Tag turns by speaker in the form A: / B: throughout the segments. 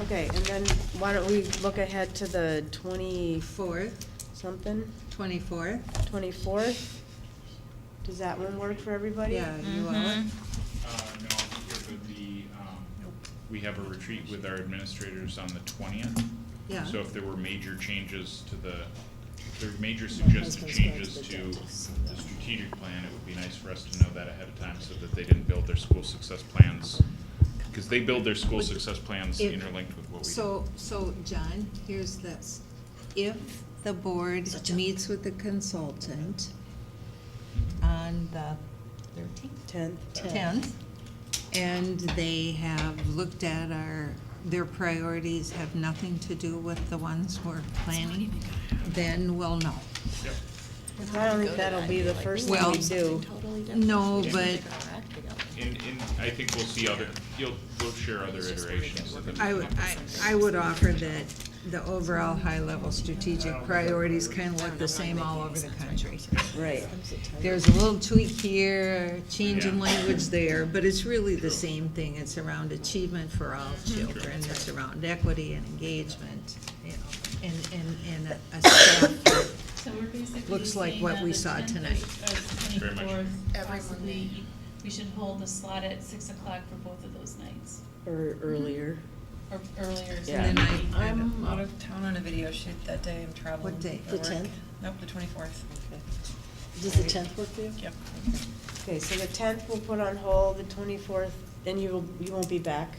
A: Okay, and then why don't we look ahead to the twenty-fourth, something,
B: 24th.
A: twenty-fourth? Does that one work for everybody?
B: Yeah, you are.
C: Uh, no, I'll be here for the, um, we have a retreat with our administrators on the twentieth.
B: Yeah.
C: So if there were major changes to the, if there were major suggested
D: husband's going to
C: changes
D: the
C: to
D: dentist.
C: the strategic plan, it would be nice for us to know that ahead of time so that they didn't build their school success plans. Because they build their school success plans
B: If-
C: interlinked with what we do.
B: So, so John, here's this. If the board meets with the consultant
C: Mm-hmm.
B: on the
A: Tenth?
B: tenth, and they have looked at our, their priorities have nothing to do with the ones we're planning, then we'll know.
C: Yep.
A: I don't think that'll be the first thing we
B: Well-
A: do.
B: No, but
C: And, and I think we'll see other, you'll, we'll share other iterations of
B: I
C: the,
B: would, I, I would offer that the overall high-level strategic priorities kind of look the same all over the country.
A: Right.
B: There's a little tweak here, change in
C: Yeah.
B: language there, but it's really the same thing. It's around achievement for all children, it's around equity and engagement, you know, and, and, and a- a step.
E: So we're basically
B: Looks like
E: saying
B: what
E: on
B: we
E: the
B: saw
E: 10th
B: uh, tonight.
E: of- of
C: Very much.
E: 24th, uh, possibly, we should hold the slot at six o'clock for both of those nights,
A: Or earlier.
E: or earlier. so
A: Yeah.
E: that
B: And then
E: we-
B: I-
F: I'm out of town on a video shoot that day, I'm traveling.
B: What day?
F: for
D: The
F: work.
D: 10th?
F: Nope, the twenty-fourth,
D: Does the tenth work for you?
F: yep.
A: Okay, so the tenth we'll put on hold, the twenty-fourth, then you will, you won't be back.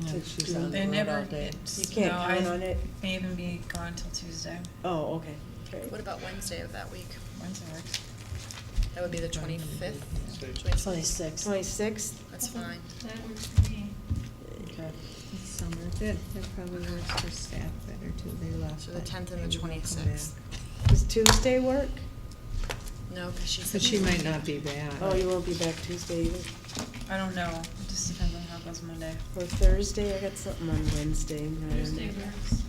B: No, she's on the
F: They
B: road all
F: never,
B: day.
F: it's.
A: You can't
F: no, I
A: count on it.
F: May even be gone till Tuesday,
A: Oh, okay. Great.
G: What about Wednesday of that week?
F: Wednesday works.
G: That would be the twenty-fifth?
D: Twenty-sixth.
A: Twenty-sixth?
G: That's fine.
E: That works for me.
D: Okay.
B: It's Summer, that, that probably works for staff better too, they left.
G: So the
B: but
G: 10th and the
B: maybe they'll come back.
G: 26th.
A: Does Tuesday work?
G: No, because she's.
B: But she might not be back.
A: Oh, you won't be back Tuesday either,
F: I don't know, it just depends on how it goes Monday.
A: or Thursday, I got something on Wednesday.
E: Thursday works.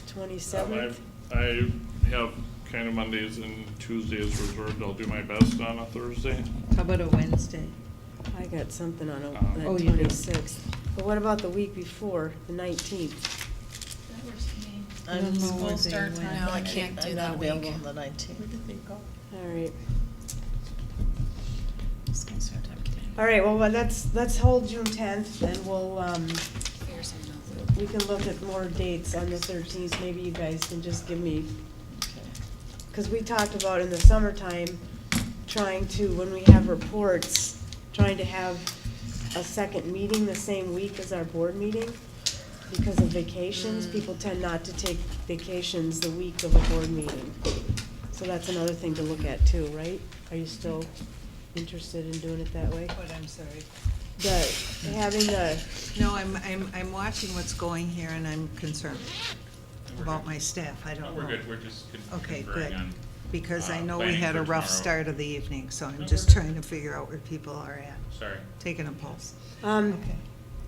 H: Um,
A: Twenty-seventh?
H: I've- I have kind of Mondays and Tuesdays reserved. I'll do my best on a Thursday.
B: How about a Wednesday?
A: I got something on
H: Um,
A: the
B: Oh, you do.
A: twenty-sixth. But what about the week before, the nineteenth?
E: That works for me.
B: I don't
F: Um,
B: know
F: school
B: where they
F: starts
B: went.
F: now.
G: No, I can't do
D: I'm
G: that
D: not
G: week.
D: available on the nineteenth.
A: All right.
G: Just gonna start talking to
A: All right, well, well, let's, let's hold June tenth, and we'll, um,
G: you. Figure something out.
A: we can look at more dates on the thirteenth. Maybe you guys can just give me, because we talked about in the summertime, trying to, when we have reports, trying to have a second meeting the same week as our board meeting. Because of vacations, people tend not to take vacations the week of a board meeting. So that's another thing to look at too, right? Are you still interested in doing it that way?
B: What, I'm sorry.
A: The, having the,
B: No, I'm, I'm, I'm watching what's going here and I'm concerned
C: We're
B: about
C: good.
B: my staff, I
C: No,
B: don't know.
C: we're good, we're just con-
B: Okay,
C: conferring
B: good.
C: on.
B: Because I
C: uh,
B: know we
C: planning
B: had a
C: for
B: rough
C: tomorrow.
B: start of the evening, so
C: No,
B: I'm
C: we're
B: just
C: good.
B: trying to figure out where people are at,
C: Sorry.
B: taking a pulse.
A: um,
B: Okay,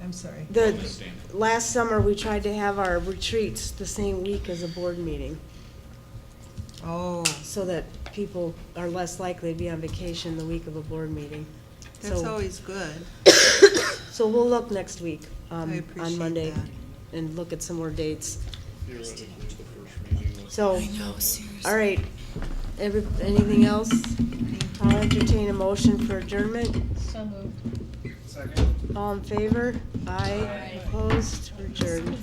B: I'm sorry.
A: the,
C: Understand.
A: last summer, we tried to have our retreats the same week as a board meeting,
B: Oh,
A: so that people are less likely to be on vacation the week of a board meeting.
B: that's
A: So-
B: always good.
A: So we'll look next week, um, on
B: appreciate
A: Monday,
B: that.
A: and look at some more dates.
H: Theoretically, the first meeting was.
A: So, all right, every, anything else? I'll entertain a motion for adjournment.
E: So moved.
A: All in favor? Aye. Opposed? We're Adjourned.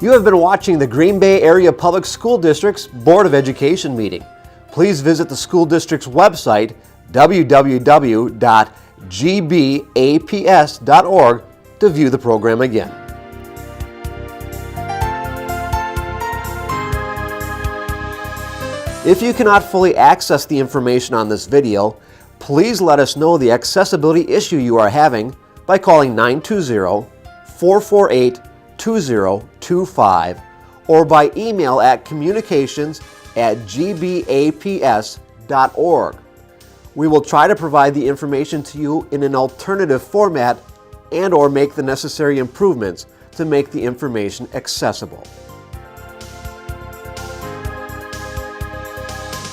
I: You have been watching the Green Bay Area Public School District's Board of Education meeting. Please visit the school district's website, www.gbaps.org, to view the program again. If you cannot fully access the information on this video, please let us know the accessibility issue you are having by calling 920-448-2025 or by email at communications at gbaps.org. We will try to provide the information to you in an alternative format and or make the necessary improvements to make the information accessible.